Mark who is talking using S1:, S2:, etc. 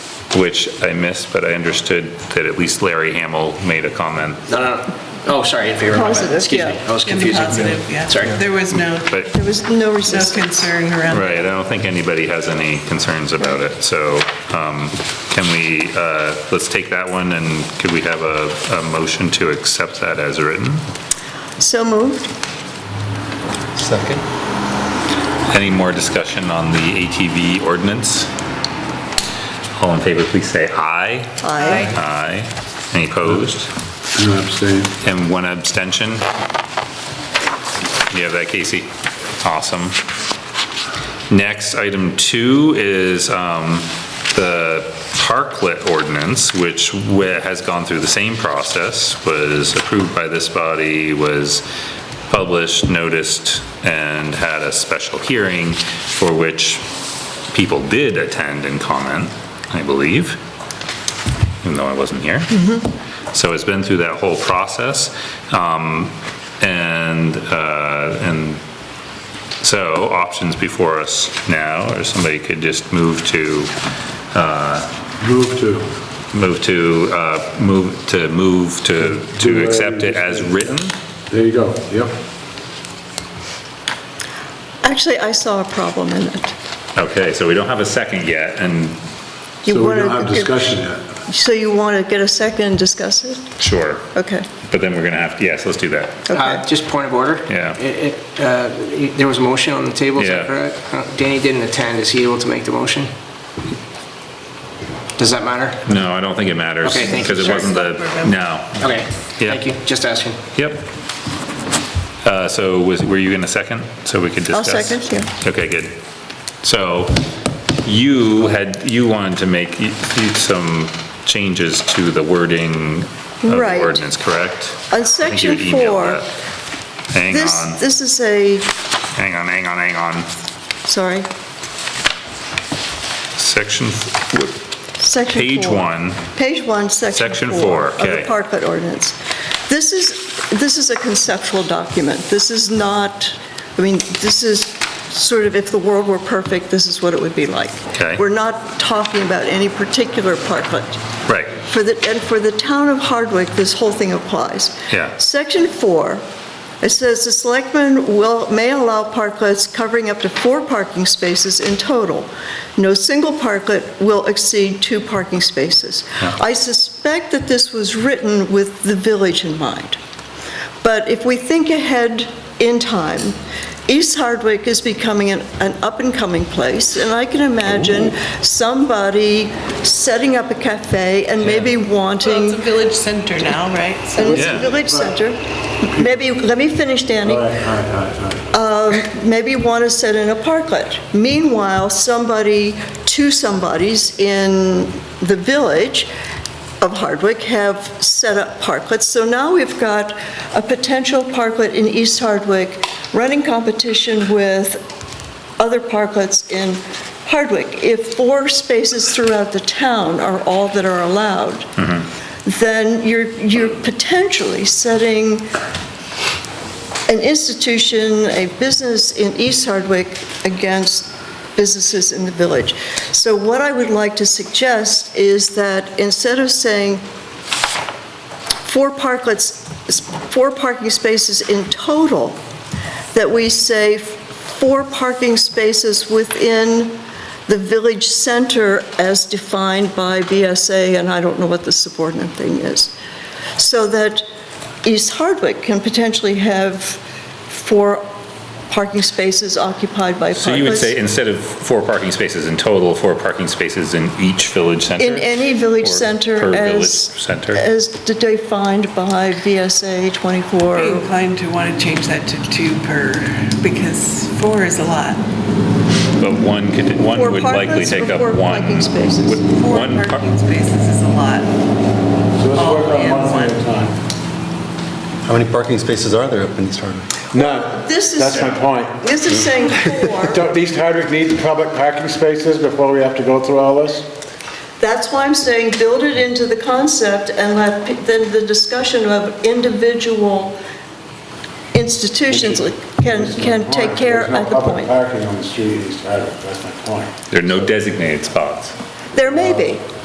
S1: which I missed, but I understood that at least Larry Hamel made a comment.
S2: No, no, no. oh, sorry, in favor. my bad.
S3: Positive,
S2: Excuse me,
S3: yeah.
S2: I was
S4: In the
S2: confusing.
S4: positive, yeah.
S2: Sorry.
S4: There was no,
S1: But,
S3: There was no
S4: no
S3: resistance.
S4: concern around
S1: right, I don't think anybody has any concerns about it, so um, can we, uh, let's take that one, and could we have a, a motion to accept that as written?
S3: So moved.
S5: Second.
S1: Any more discussion on the ATV ordinance? All in favor, please say aye.
S3: Aye.
S1: Aye. Any opposed?
S6: No, abstain.
S1: And one abstention? You have that, Casey? Awesome. Next, item two is um, the parklet ordinance, which wa- has gone through the same process, was approved by this body, was published, noticed, and had a special hearing for which people did attend and comment, I believe, even though I wasn't here. So it's been through that whole process. um, And, uh, and so options before us now, or somebody could just move to,
S6: Move to.
S1: move to, uh, move, to move to, to accept it as written.
S6: There you go, yep.
S3: Actually, I saw a problem in it.
S1: Okay, so we don't have a second yet, and
S3: You
S6: So we
S3: wanna-
S6: don't have discussion yet.
S3: So you want to get a second and discuss it?
S1: sure,
S3: Okay,
S1: but then we're gonna have, yes, let's do that.
S2: Uh,
S3: okay.
S2: Just point of order?
S1: Yeah.
S2: It- it, uh, There was a motion on the table, is that
S1: Yeah.
S2: correct? Uh, Danny didn't attend, is he able to make the motion? Does that matter?
S1: No, I don't think it matters.
S2: Okay, thank you.
S1: Because it
S2: Sure.
S1: wasn't the, no,
S2: Okay,
S1: Yeah.
S2: thank you, just asking.
S1: Yep. Uh, So was, were you in a second, so we could
S3: I'll
S1: discuss?
S3: second, yeah.
S1: Okay, good. So you had, you wanted to make y- y- some changes to the wording of the
S3: Right.
S1: ordinance, correct?
S3: On
S1: I think you
S3: section
S1: emailed
S3: four,
S1: that. Hang
S3: this,
S1: on,
S3: this is a,
S1: hang on, hang on, hang on.
S3: sorry,
S1: Section, f- what-
S3: section four.
S1: page one,
S3: Page one,
S1: Section
S3: section
S1: four,
S3: four.
S1: okay.
S3: Of the parklet ordinance. This is, this is a conceptual document. This is not, I mean, this is sort of, if the world were perfect, this is what it would be like.
S1: Okay.
S3: We're not talking about any particular parklet.
S1: right,
S3: For the, and for the town of Hardwick, this whole thing applies.
S1: Yeah.
S3: Section four, it says the selectmen will, may allow parklets covering up to four parking spaces in total. No single parklet will exceed two parking spaces.
S1: Yeah.
S3: I suspect that this was written with the village in mind. But if we think ahead in time, East Hardwick is becoming an, an up-and-coming place, and I can imagine somebody setting up a cafe and maybe
S4: Well, it's
S3: wanting,
S4: a village center now, right?
S3: and
S4: So
S3: it's a
S1: Yeah.
S3: village center, maybe, let me finish, Danny
S6: All right, all right, all right, all right.
S3: Um, maybe want to set in a parklet. Meanwhile, somebody, two somebodies in the village of Hardwick have set up parklets. So now we've got a potential parklet in East Hardwick running competition with other parklets in Hardwick. If four spaces throughout the town are all that are allowed, then you're, you're potentially setting an institution, a business in East Hardwick against businesses in the village. So what I would like to suggest is that instead of saying four parklets, four parking spaces in total, that we say four parking spaces within the village center as defined by BSA, and I don't know what the subordinate thing is. So that East Hardwick can potentially have four parking spaces occupied by parklets.
S1: so you would say instead of four parking spaces in total, four parking spaces in each village center?
S3: In any village
S1: Or
S3: center
S1: Per village
S3: as,
S1: center?
S3: as defined by VSA 24.
S4: I'd be inclined to want to change that to two per, because four is a lot.
S1: But one could, one
S3: Four
S1: would likely
S3: parklets
S1: take
S3: or
S1: up
S3: four
S1: one.
S3: parking spaces?
S1: would
S4: Four
S1: one par-
S4: parking spaces is a lot.
S6: So let's
S4: All
S6: work on
S3: Oh,
S4: in
S6: one
S4: one.
S6: at a time.
S5: How many parking spaces are there up in East Hardwick?
S6: No,
S3: This is-
S6: that's my point.
S3: This is saying four.
S6: Don't East Hardwick need public parking spaces before we have to go through all this?
S3: That's why I'm saying build it into the concept and let, pe- then the discussion of individual institutions can,
S6: That's my
S3: can
S6: point.
S3: take care at the
S6: There's no public
S3: point.
S6: parking on the street in East Hardwick, that's my point.
S1: There are no designated spots.
S3: There may be.